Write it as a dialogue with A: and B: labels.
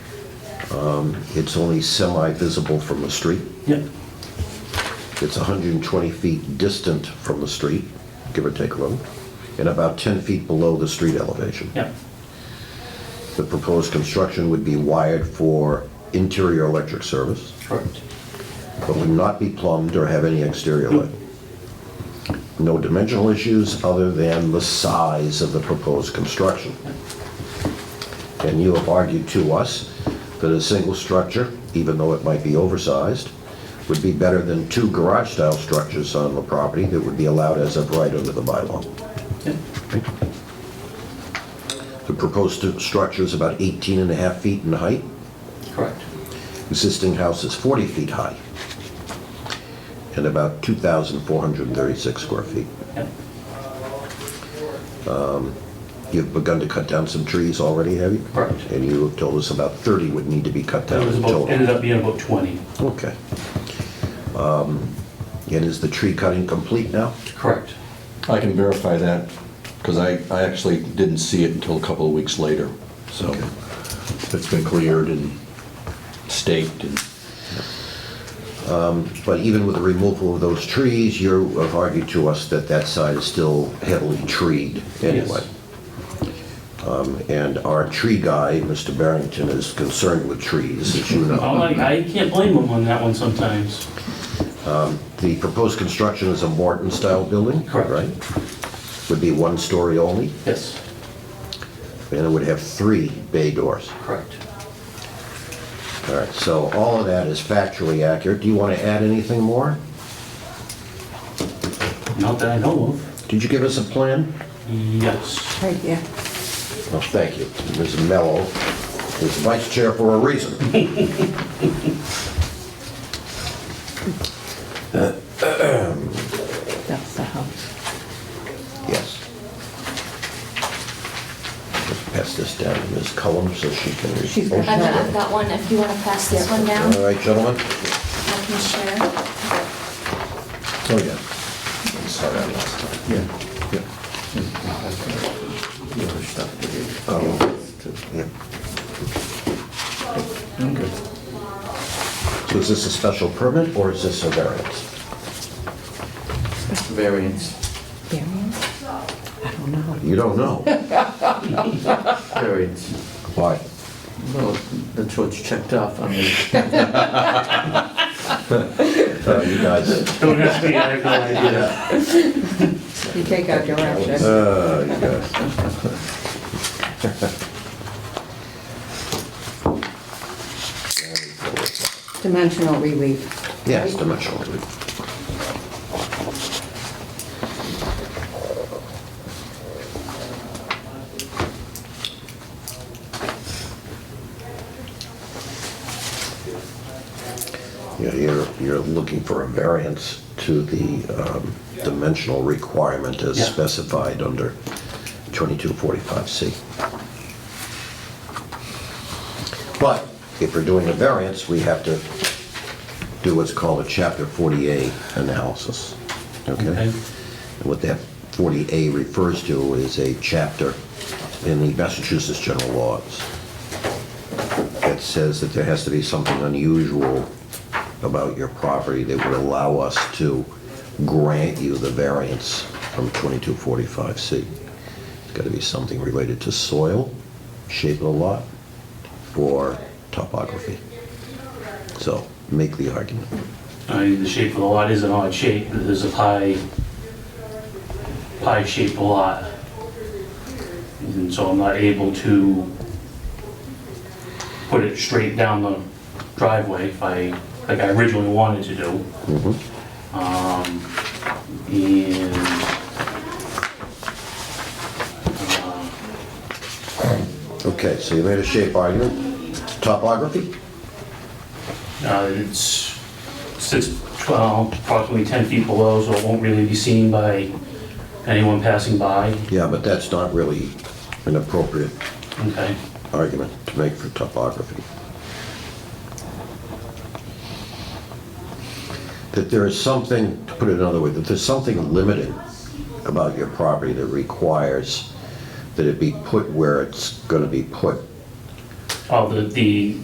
A: Um, It's only semi-visible from the street.
B: Yep.
A: It's 120 feet distant from the street, give or take a little, and about 10 feet below the street elevation.
B: Yep.
A: The proposed construction would be wired for interior electric service,
B: Correct.
A: but would not be plumbed or have any exterior light. No dimensional issues other than the size of the proposed construction. And you have argued to us that a single structure, even though it might be oversized, would be better than two garage-style structures on the property that would be allowed as of right under the bylaw.
B: Yep.
A: The proposed stu- structure is about 18 and a half feet in height.
B: Correct.
A: Existing house is 40 feet high and about 2,436 square feet.
B: Yep.
A: You've begun to cut down some trees already, have you?
B: Correct.
A: And you have told us about 30 would need to be cut
B: That
A: down
B: was
A: in
B: about,
A: total.
B: ended up being about 20.
A: Okay. Um, And is the tree cutting complete now?
B: Correct.
C: I can verify that, because I, I actually didn't see it until a couple of weeks later. So
A: Okay.
C: it's been cleared and staked and,
A: But even with the removal of those trees, you have argued to us that that side is still heavily treed anyway. Um, And our tree guy, Mr. Barrington, is concerned with trees, as you
B: I'm
A: know.
B: like, I can't blame them on that one sometimes.
A: The proposed construction is a Morton-style building,
B: Correct.
A: right? Would be one story only,
B: Yes.
A: and it would have three bay doors.
B: Correct.
A: All right, so all of that is factually accurate. Do you want to add anything more?
B: Not that I know of.
A: Did you give us a plan?
B: Yes.
D: Right here.
A: Well, thank you. Ms. Mello is vice chair for a reason.
D: That's the house.
A: Yes. Let's pass this down to Ms. Cullum so she can... read.
D: She's got-
E: I've got, I've got one, if you wanna pass this one down,
A: All right, gentlemen?
E: I can share.
A: Oh, yeah. I'm Sorry, I lost time. Yeah. Oh, So is this a special permit or is this a variance?
F: Variance,
D: Variance? I don't know.
A: You don't know.
F: variance.
A: Why?
F: Well, that's what's checked off on the,
A: Uh, You guys,
B: Don't ask me, I have no idea.
D: You take out your option.
A: uh, you guys.
D: Dimensional relief.
A: Yes, dimensional relief. Yeah, you're, you're looking for a variance to the um, dimensional requirement as
B: Yeah.
A: specified under 2245C. But if we're doing a variance, we have to do what's called a Chapter 40A analysis, okay?
B: Okay.
A: And what that 40A refers to is a chapter in the Massachusetts General Laws that says that there has to be something unusual about your property that would allow us to grant you the variance from 2245C. It's got to be something related to soil, shape of the lot, or topography. So make the argument.
B: I mean, the shape of the lot is an odd shape, there's a pie, pie-shaped lot. And so I'm not able to put it straight down the driveway if I, like I originally wanted to do. Um, and, uh,
A: Okay, so you made a shape argument. Topography?
B: Uh, It's six, well, approximately 10 feet below, so it won't really be seen by anyone passing by.
A: Yeah, but that's not really an appropriate
B: Okay,
A: argument to make for topography. That there is something, to put it another way, that there's something limiting about your property that requires that it be put where it's gonna be put
B: oh, the, the